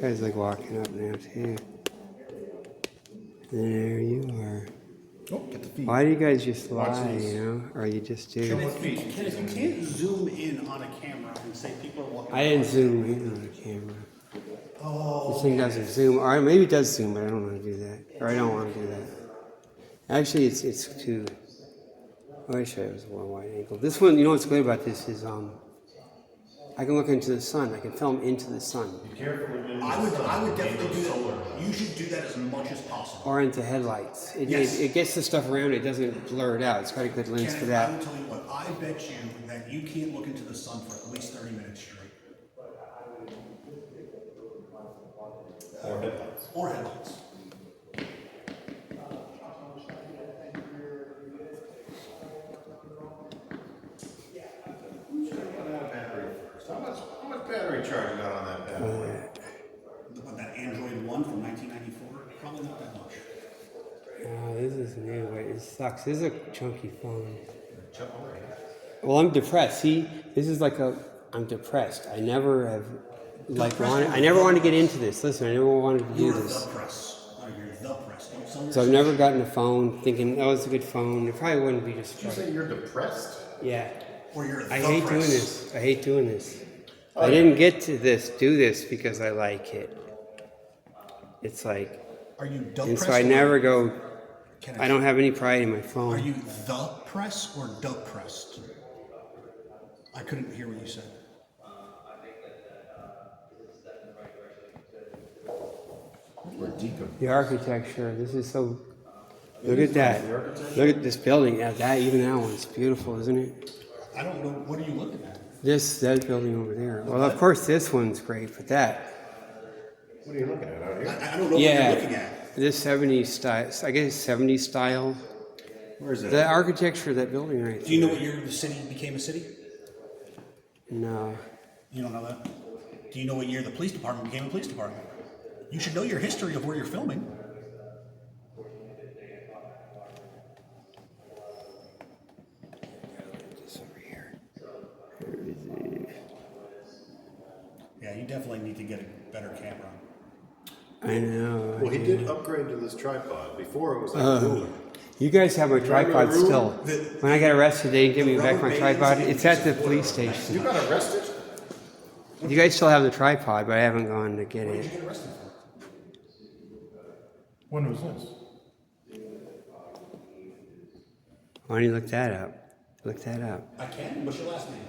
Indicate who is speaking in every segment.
Speaker 1: Guys like walking up now too. There you are.
Speaker 2: Oh, get the feet.
Speaker 1: Why do you guys just
Speaker 2: Watch
Speaker 1: lie,
Speaker 2: this.
Speaker 1: you know? Or you just do?
Speaker 2: What feet?
Speaker 3: Kenneth, you can't zoom in on a camera and say people are walking.
Speaker 1: I didn't zoom in on the camera. Oh. This thing doesn't zoom. Or maybe it does zoom, but I don't want to do that. Or I don't want to do that. Actually, it's it's too. I wish I was a more wide angle. This one, you know what's great about this is um, I can look into the sun. I can film into the sun
Speaker 3: I would, I would definitely do that. You should do that as much as possible.
Speaker 1: or into headlights. It,
Speaker 3: Yes.
Speaker 1: it, it gets the stuff around. It doesn't blur it out. It's got a good lens for
Speaker 3: Kenneth,
Speaker 1: that.
Speaker 3: I will tell you what, I bet you that you can't look into the sun for at least thirty minutes straight. Or headlights.
Speaker 2: How much, how much battery charge you got on that bad boy?
Speaker 3: Or headlights. What, that Android one from nineteen ninety-four? Probably not that much.
Speaker 1: Oh, this is new, but it sucks. This is a chunky phone.
Speaker 2: Chuck, all right.
Speaker 1: Well, I'm depressed. See, this is like a. I'm depressed. I never have, like, wanted, I never wanted to get into this. Listen, I never wanted to do
Speaker 3: You're the
Speaker 1: this.
Speaker 3: press. Oh, you're the press. Don't sell
Speaker 1: So I've
Speaker 3: yourself.
Speaker 1: never gotten a phone thinking that was a good phone. It probably wouldn't be just.
Speaker 2: Did you say you're depressed?
Speaker 1: Yeah.
Speaker 3: Or you're the
Speaker 1: I hate doing
Speaker 3: press.
Speaker 1: this. I hate doing this.
Speaker 2: Oh,
Speaker 1: I didn't get to this, do this because I like it. It's like,
Speaker 3: Are you the
Speaker 1: and
Speaker 3: press?
Speaker 1: so I
Speaker 3: or-
Speaker 1: never go.
Speaker 3: Kenneth,
Speaker 1: I don't have any pride in my
Speaker 3: Are
Speaker 1: phone.
Speaker 3: you the press or the pressed? I couldn't hear what you said.
Speaker 2: We're deep in.
Speaker 1: The architecture. This is so. Look at that. Look at this building. Yeah, that even that one's beautiful, isn't it?
Speaker 3: I don't know. What are you looking at?
Speaker 1: This that building over there. Well, of course this one's great, but that
Speaker 2: What are you looking at out here?
Speaker 3: I, I don't know
Speaker 1: yeah.
Speaker 3: what you're looking at.
Speaker 1: This 70s style. I guess 70s style.
Speaker 2: Where is
Speaker 1: The
Speaker 2: that?
Speaker 1: architecture of that building right
Speaker 3: Do you know what year the city became a city?
Speaker 1: No.
Speaker 3: You don't know that. Do you know what year the police department became a police department? You should know your history of where you're filming.
Speaker 1: This over here.
Speaker 3: Yeah, you definitely need to get a better camera.
Speaker 1: I know.
Speaker 2: Well, he did upgrade to this tripod. Before it was like cooler.
Speaker 1: You guys have my
Speaker 2: Remember
Speaker 1: tripod
Speaker 2: the room?
Speaker 1: still.
Speaker 3: The-
Speaker 1: When I got arrested, they didn't give me back my
Speaker 3: rubber bands
Speaker 1: tripod.
Speaker 3: and
Speaker 1: It's at the
Speaker 3: pieces of
Speaker 1: police
Speaker 3: wood.
Speaker 2: You
Speaker 1: station.
Speaker 2: got arrested?
Speaker 1: You guys still have the tripod, but I haven't gone to get
Speaker 3: What
Speaker 1: it.
Speaker 3: did you get arrested for?
Speaker 2: When was this?
Speaker 1: Why don't you look that up? Look that up.
Speaker 3: I can. What's your last name?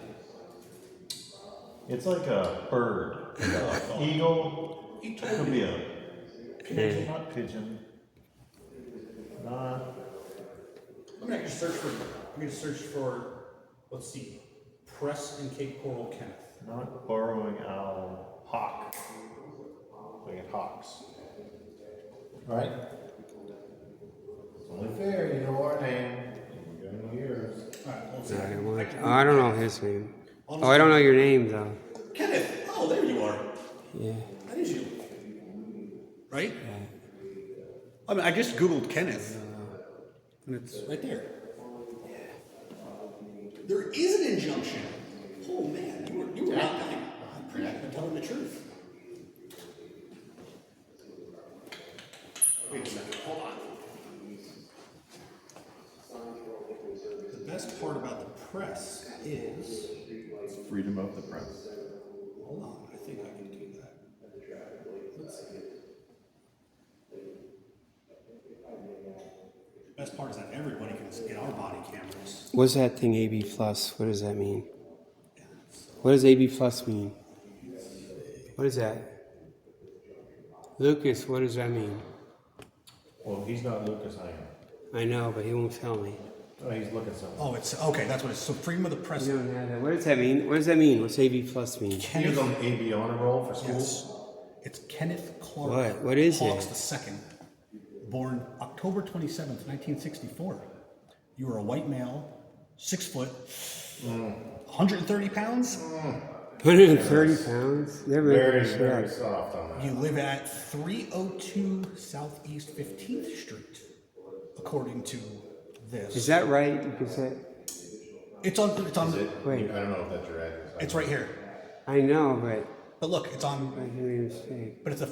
Speaker 4: It's like a bird, a eagle.
Speaker 3: He told
Speaker 4: Could
Speaker 3: me.
Speaker 4: be a pigeon, not pigeon. Not
Speaker 3: I'm gonna actually search for. I'm gonna search for. Let's see. Press and Cape Coral Kenneth.
Speaker 4: not borrowing owl. Hawk. Looking at hawks.
Speaker 2: Right? It's only fair, you know our name. We've been in years.
Speaker 3: All right. Let's see.
Speaker 1: I don't, want- oh, I don't know his name. Oh, I don't know your name though.
Speaker 3: Kenneth. Oh, there you are.
Speaker 1: Yeah.
Speaker 3: That is you. Right? I mean, I just Googled Kenneth. And it's right there. There is an injunction. Oh, man. You were, you were not lying. I'm pretty I'm telling the truth. Wait a second. Hold on. The best part about the press is.
Speaker 4: Freedom of the press.
Speaker 3: Hold on, I think I can do that. Let's see. Best part is that everybody can get our body cameras.
Speaker 1: What's that thing AB plus? What does that mean? What does AB plus mean? What is that? Lucas, what does that mean?
Speaker 4: Well, he's not Lucas. I am.
Speaker 1: I know, but he won't tell me.
Speaker 4: Oh, he's looking something.
Speaker 3: Oh, it's, okay, that's what it's, so freedom of the press.
Speaker 1: You don't have that. What does that mean? What does that mean? What's AB plus mean?
Speaker 2: He was
Speaker 3: Kenneth,
Speaker 2: on AB honor roll for school.
Speaker 3: yes, it's Kenneth Clark.
Speaker 1: What? What is
Speaker 3: Hawks
Speaker 1: it?
Speaker 3: the second, born October twenty-seventh, nineteen sixty-four. You were a white male, six foot,
Speaker 1: Mm.
Speaker 3: hundred and thirty pounds?
Speaker 1: 130 pounds? Never
Speaker 2: Very,
Speaker 1: shut
Speaker 2: very
Speaker 1: up.
Speaker 2: soft on that.
Speaker 3: You live at 302 Southeast 15th Street, according to this.
Speaker 1: Is that right? Because that,
Speaker 3: It's on. It's on.
Speaker 2: Is it?
Speaker 1: Wait.
Speaker 2: I don't know if that's your address.
Speaker 3: It's right here.
Speaker 1: I know, but But look, it's on.
Speaker 3: I hear you say.
Speaker 1: But it's a